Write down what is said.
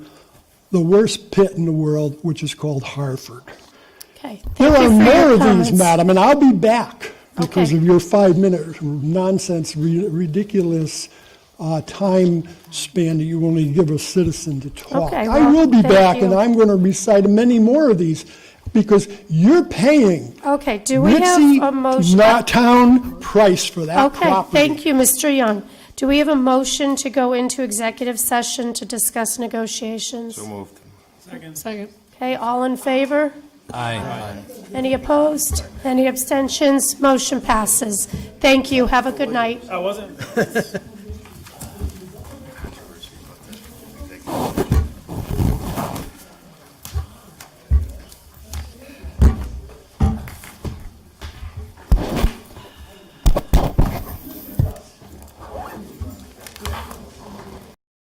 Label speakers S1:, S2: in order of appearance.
S1: the worst pit in the world, which is called Harford.
S2: Okay,
S1: There
S2: thank
S1: are
S2: you for
S1: more
S2: your
S1: of
S2: comments.
S1: these, madam, and I'll be back because
S2: Okay.
S1: of your five-minute nonsense, ri- ridiculous uh, time span that you only give a citizen to talk.
S2: Okay,
S1: I
S2: well,
S1: will be
S2: thank
S1: back, and
S2: you.
S1: I'm going to recite many more of these because you're paying
S2: Okay, do we have a
S1: Ritzy,
S2: motion?
S1: not town price for that
S2: Okay,
S1: property.
S2: thank you, Mr. Young. Do we have a motion to go into executive session to discuss negotiations?
S3: So moved.
S2: Okay, all in favor? Aye. Any opposed? Any abstentions? Motion passes. Thank you, have a good night.
S4: I wasn't.